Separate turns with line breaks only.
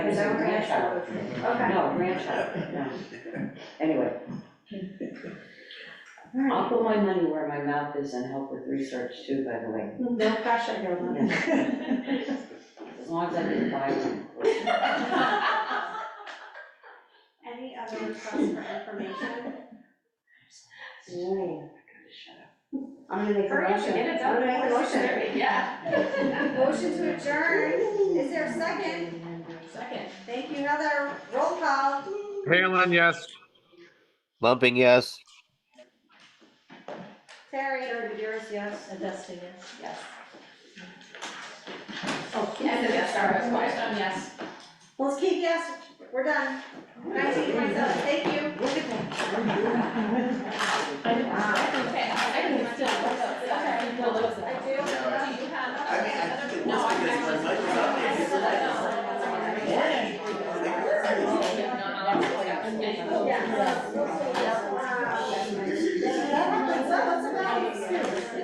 his own grandchild.
Okay.
No, grandchild, no. Anyway. I'll put my money where my mouth is and help with research too, by the way.
No pressure here, Lynn.
As long as I can buy one.
Any other requests for information?
Ooh, I gotta shut up.
I'm gonna make a
Hurry up
motion.
and get it done.
I'm gonna make a motion.
Yeah.
Motion to adjourn, is there a second?
Second.
Thank you, another roll call.
Palin, yes.
Lumping, yes.
Terry,
Sarah Bedeiros, yes. And Dustin, yes.
Yes.
Oh,
And the yes, sorry, I was quiet on yes.
let's keep yes, we're done. Can I take myself, thank you.
Look at that.
Okay, I can still, I can still
I
lose that.
do.
Do you have?
I mean, I think it was
No, I-
because when Mike was up there, people were like, "Yeah, I think we're
No,
ready."
no, no, that's- yeah.
Yeah.